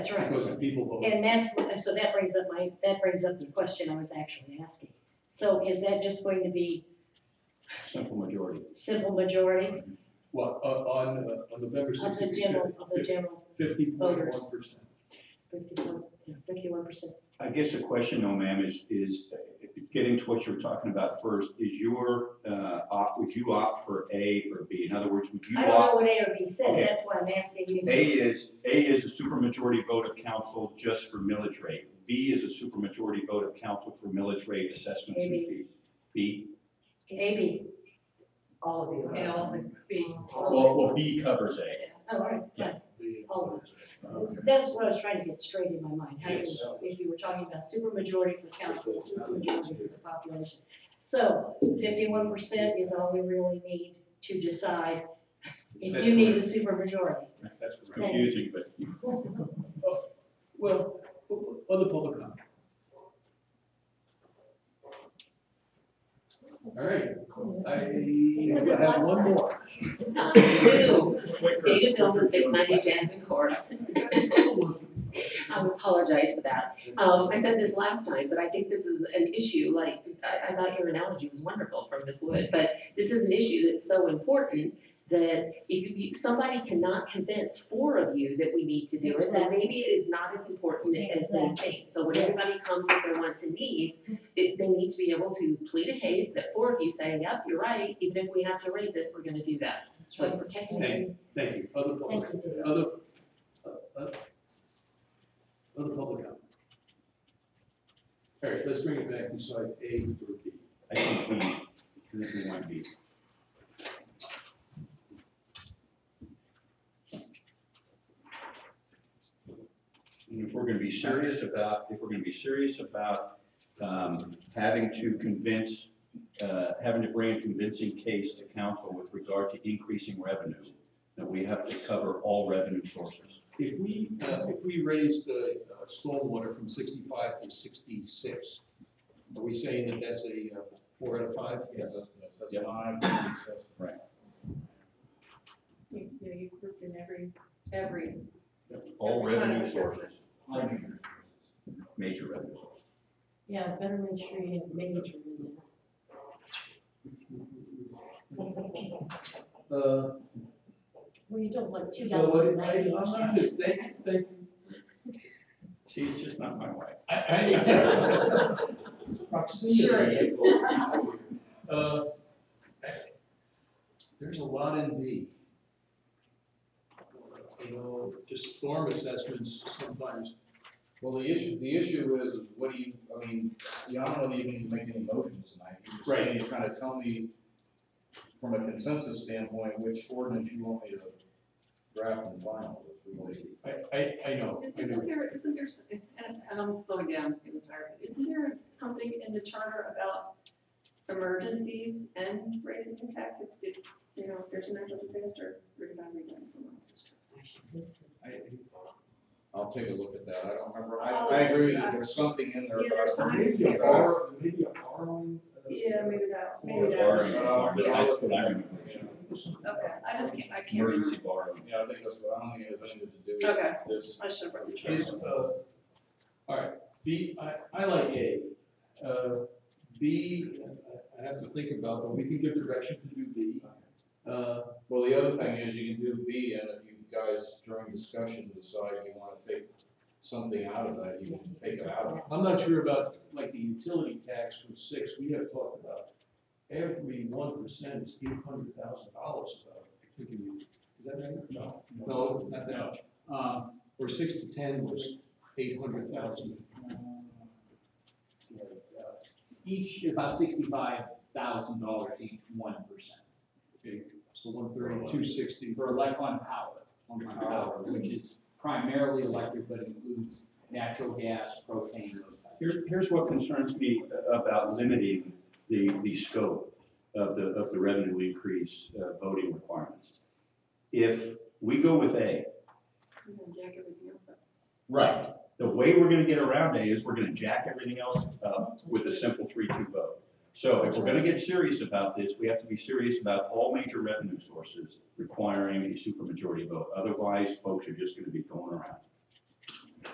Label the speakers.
Speaker 1: That's right.
Speaker 2: Because the people vote.
Speaker 1: And that's, so that brings up my, that brings up the question I was actually asking. So is that just going to be
Speaker 3: simple majority.
Speaker 1: simple majority
Speaker 2: What, uh, on, uh, on November
Speaker 1: of the
Speaker 2: sixteenth,
Speaker 1: general, of the general
Speaker 2: fifty point one percent.
Speaker 1: fifty-one percent?
Speaker 3: I guess the question though, ma'am, is, is uh, getting to what you were talking about first, is your, uh, opt, would you opt for A or B? In other words, would you
Speaker 1: I don't
Speaker 3: opt?
Speaker 1: know what A or B says,
Speaker 3: Okay.
Speaker 1: that's why I'm asking
Speaker 3: A
Speaker 1: you.
Speaker 3: is, A is a supermajority vote of council just for millage rate. B is a supermajority vote of council for millage rate assessments and
Speaker 1: Maybe.
Speaker 3: fees. B,
Speaker 1: A, B.
Speaker 4: All of you.
Speaker 5: L, B.
Speaker 3: well, well, B covers A.
Speaker 1: Oh, all right,
Speaker 3: Yeah.
Speaker 1: fine. That's what I was trying to get straight in my mind. How do you, if you were talking about supermajority for council, supermajority for the population. So fifty-one percent is all we really need to decide if
Speaker 2: That's
Speaker 1: you need a
Speaker 2: correct.
Speaker 1: supermajority.
Speaker 2: That's correct.
Speaker 3: Confusing, but
Speaker 2: Well, o- o- other public comment. All right,
Speaker 1: Isn't
Speaker 2: I
Speaker 1: this last
Speaker 2: have one
Speaker 1: time?
Speaker 2: more.
Speaker 5: Two,
Speaker 2: Quicker.
Speaker 5: Data Philbin, six ninety Jansen Court. I apologize for that. Um, I said this last time, but I think this is an issue, like, I, I thought your analogy was wonderful from Ms. Wood, but this is an issue that's so important that if you, somebody cannot convince four of you that we need to do it, then
Speaker 6: Exactly.
Speaker 5: maybe it is not as important as they think. So when everybody comes with their wants and needs, it, they need to be able to plead a case that four of you say, yep, you're right, even if we have to raise it, we're gonna do that. So it's protecting
Speaker 2: Thank
Speaker 5: us.
Speaker 2: you, thank you, other public,
Speaker 6: Thank you.
Speaker 2: other, uh, uh, other public comment. All right, let's bring it back inside A or B.
Speaker 3: I think we, I think we want B. And if we're gonna be serious about, if we're gonna be serious about, um, having to convince, uh, having to bring a convincing case to council with regard to increasing revenue, then we have to cover all revenue sources.
Speaker 2: If we, uh, if we raise the uh, stormwater from sixty-five to sixty-six, are we saying that that's a uh, four out of five?
Speaker 3: Yes.
Speaker 7: That's
Speaker 3: Yep.
Speaker 7: fine.
Speaker 8: You know, you grouped in every, every,
Speaker 3: All
Speaker 8: Every kind of
Speaker 3: revenue
Speaker 8: assessment.
Speaker 3: sources, major revenue sources.
Speaker 6: Yeah, better make sure you have major in
Speaker 2: Uh,
Speaker 6: there. Well, you don't want two
Speaker 2: so
Speaker 6: dollars and
Speaker 2: I, I, I'm
Speaker 6: ninety
Speaker 2: not,
Speaker 6: cents.
Speaker 2: they, they,
Speaker 3: See, it's just not my way.
Speaker 2: I, I. Proximity.
Speaker 5: Sure it is.
Speaker 2: Uh, There's a lot in B. You know, just storm assessments sometimes,
Speaker 7: Well, the issue, the issue is, is what do you, I mean, yeah, I don't know that you can make any motions tonight. You're just saying, You're trying to tell me from a consensus standpoint, which ordinance you want me to draft and final. if we want to.
Speaker 2: I, I, I know. I know.
Speaker 8: isn't there, isn't there, s- and, and I'm slowing down, I'm tired, but isn't there something in the charter about emergencies and raising the tax if, if, you know, if there's a natural disaster, we're gonna be doing someone else's charter?
Speaker 2: I-
Speaker 7: I'll take a look at that. I don't remember. I,
Speaker 8: I'll
Speaker 7: I
Speaker 8: look
Speaker 7: agree
Speaker 8: into
Speaker 7: that
Speaker 8: that.
Speaker 7: there's something in there
Speaker 8: Yeah,
Speaker 7: about
Speaker 8: there's
Speaker 7: some.
Speaker 8: something
Speaker 2: Maybe a bar, maybe a borrowing. uh,
Speaker 8: Yeah, maybe that,
Speaker 3: Or
Speaker 8: maybe
Speaker 3: borrowing,
Speaker 8: that,
Speaker 3: but that's what I remember.
Speaker 8: okay, I just can't, I can't remember,
Speaker 3: Emergency borrowing.
Speaker 7: Yeah, I think that's what, I don't think it has anything to do
Speaker 8: okay,
Speaker 7: with this.
Speaker 8: I should have brought the charter.
Speaker 2: Is, uh, all right, B, I, I like A. Uh, B, I I have to think about, but we can give direction to do B. Uh,
Speaker 7: Well, the other thing is you can do B, and if you guys during discussion decide you wanna take something out of that, you can take it out of it.
Speaker 2: I'm not sure about, like, the utility tax from six, we have talked about every one percent is eight hundred thousand dollars about, I think, in- is that right? No. No, not that much.
Speaker 7: Um,
Speaker 2: Or six to ten was eight hundred thousand.
Speaker 9: each about sixty-five thousand dollars each one percent
Speaker 2: Okay, so one thirty, two sixty.
Speaker 9: for elec on power, on power, which is primarily electric, but includes natural gas, propane, those types.
Speaker 3: Here's, here's what concerns me about limiting the, the scope of the, of the revenue increase uh, voting requirements. If we go with A.
Speaker 8: I'm gonna jack everything else up.
Speaker 3: Right. The way we're gonna get around A is we're gonna jack everything else up with a simple three-two vote. So if we're gonna get serious about this, we have to be serious about all major revenue sources requiring a supermajority vote. Otherwise, folks are just gonna be going around.